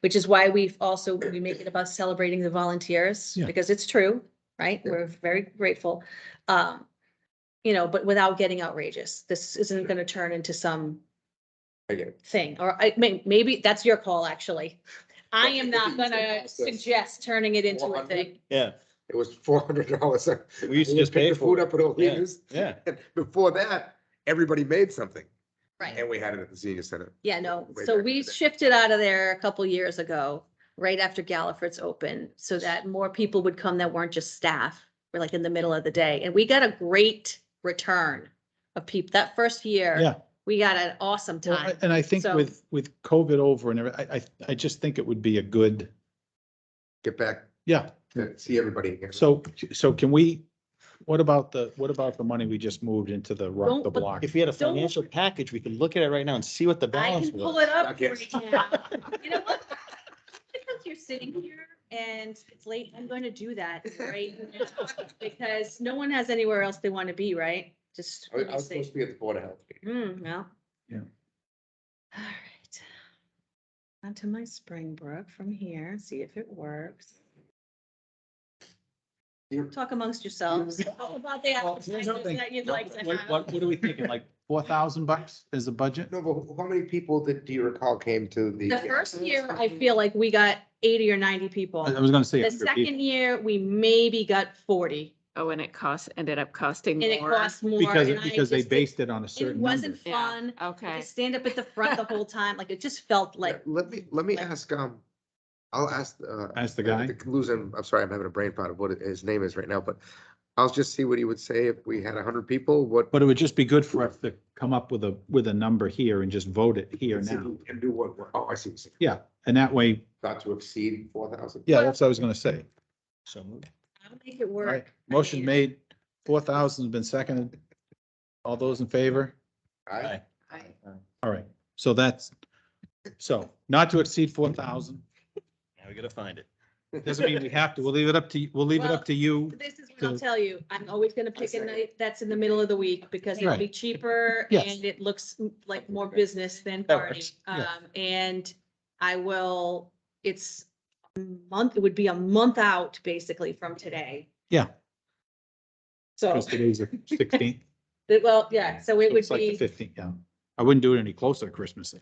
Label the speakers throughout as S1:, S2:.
S1: which is why we've also, we make it about celebrating the volunteers,
S2: Yeah.
S1: because it's true, right? We're very grateful. Um, you know, but without getting outrageous, this isn't gonna turn into some
S3: I get it.
S1: thing, or I may, maybe that's your call, actually. I am not gonna suggest turning it into a
S3: 400.
S1: thing.
S2: Yeah,
S3: It was four hundred dollars.
S2: We used to just pay for
S3: Food
S2: it.
S3: up at O'Leary's.
S2: yeah.
S3: And Before that, everybody made something
S1: Right,
S3: and we had it at the senior center.
S1: yeah, no,
S3: Way
S1: so
S3: back
S1: we
S3: in the day.
S1: shifted out of there a couple years ago, right after Galliford's open, so that more people would come that weren't just staff. We're like in the middle of the day, and we got a great return of people, that first year.
S2: Yeah.
S1: We got an awesome
S2: Well, I-
S1: time,
S2: And I think
S1: So-
S2: with, with COVID over and everything, I, I, I just think it would be a good,
S3: Get back
S2: yeah.
S3: to see everybody again.
S2: So, so can we, what about the, what about the money we just moved into the
S1: Don't-
S2: rock the
S1: but-
S2: block?
S4: If we had a
S1: Don't-
S4: financial package, we could look at it right now and see what the
S1: I
S4: balance
S1: can pull
S4: was.
S1: it up for you
S3: Yes.
S1: now. You know what? Because you're sitting here and it's late, I'm gonna do that right now, because no one has anywhere else they want to be, right? Just.
S3: I was- I was supposed to be at the Board of Health. meeting.
S1: Hmm, well.
S2: Yeah.
S1: All right. Onto my Springbrook from here, see if it works.
S3: You-
S1: Talk amongst yourselves How about the
S2: Well,
S1: exercises
S2: here's something.
S1: that you'd like to
S2: What,
S1: have.
S2: what what are we thinking? Like four thousand bucks is the budget?
S3: No, but how many people did, do you recall came to the?
S1: The first year, I feel like we got eighty or ninety people.
S2: I I was gonna say.
S1: The
S2: 100 people,
S1: second year, we maybe got forty
S5: Oh, and it cost, ended up costing
S1: and it
S5: more.
S1: cost more.
S2: Because,
S1: and I
S2: because they
S1: just-
S2: based it on a
S1: It
S2: certain number.
S1: wasn't
S5: Yeah,
S1: fun.
S5: Okay.
S1: To stand up at the front the whole time, like it just felt like,
S3: Let me, let me
S1: like-
S3: ask, um, I'll ask, uh.
S2: Ask the guy.
S3: Losing, I'm sorry, I'm having a brain pot of what his name is right now, but I'll just see what he would say if we had a hundred people, what.
S2: But it would just be good for us to come up with a, with a number here and just vote it here
S3: see
S2: now.
S3: who Can do what, oh, I see, what you're saying.
S2: Yeah, and that way,
S3: not to exceed four thousand.
S2: yeah, that's what I was gonna say.
S4: So moved.
S1: I'll make it
S2: All right,
S1: work. I
S2: motion
S1: mean,
S2: made, four thousand's been seconded. All those in favor?
S3: I,
S2: All right, so that's, so not to exceed four thousand,
S4: Now we gotta find it.
S2: doesn't mean we have to, we'll leave it up to, you. we'll leave it up to you.
S1: This is what I'll
S2: to-
S1: tell you. I'm always gonna pick a
S3: second.
S1: night that's in the middle of the week because it'll
S2: Right.
S1: be cheaper
S2: Yes.
S1: and it looks mm, like more business than
S4: That
S1: party.
S4: works,
S1: Um,
S2: yeah.
S1: and I will, it's a month, it would be a month out basically from today.
S2: Yeah.
S1: So,
S2: Because today's the sixteenth,
S1: that- well, yeah, so it would
S2: it's like the
S1: be,
S2: fifteenth, yeah. I wouldn't do it any closer to Christmas.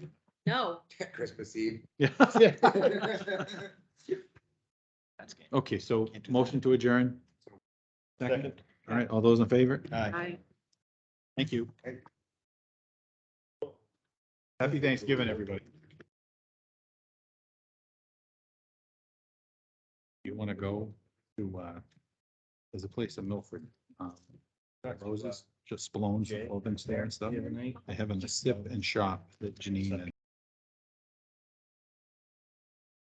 S1: no,
S3: Christmas Eve.
S2: Yeah.
S4: That's good.
S2: Okay, so motion to adjourn. Second, all right, all those in favor?
S4: Aye.
S5: I-
S2: Thank you. Happy Thanksgiving, everybody. You want to go to, uh, there's a place in Milford, um, Roses, just Spalone's, opens there and stuff.
S4: Yeah.
S2: They have a sip and shop that Janine and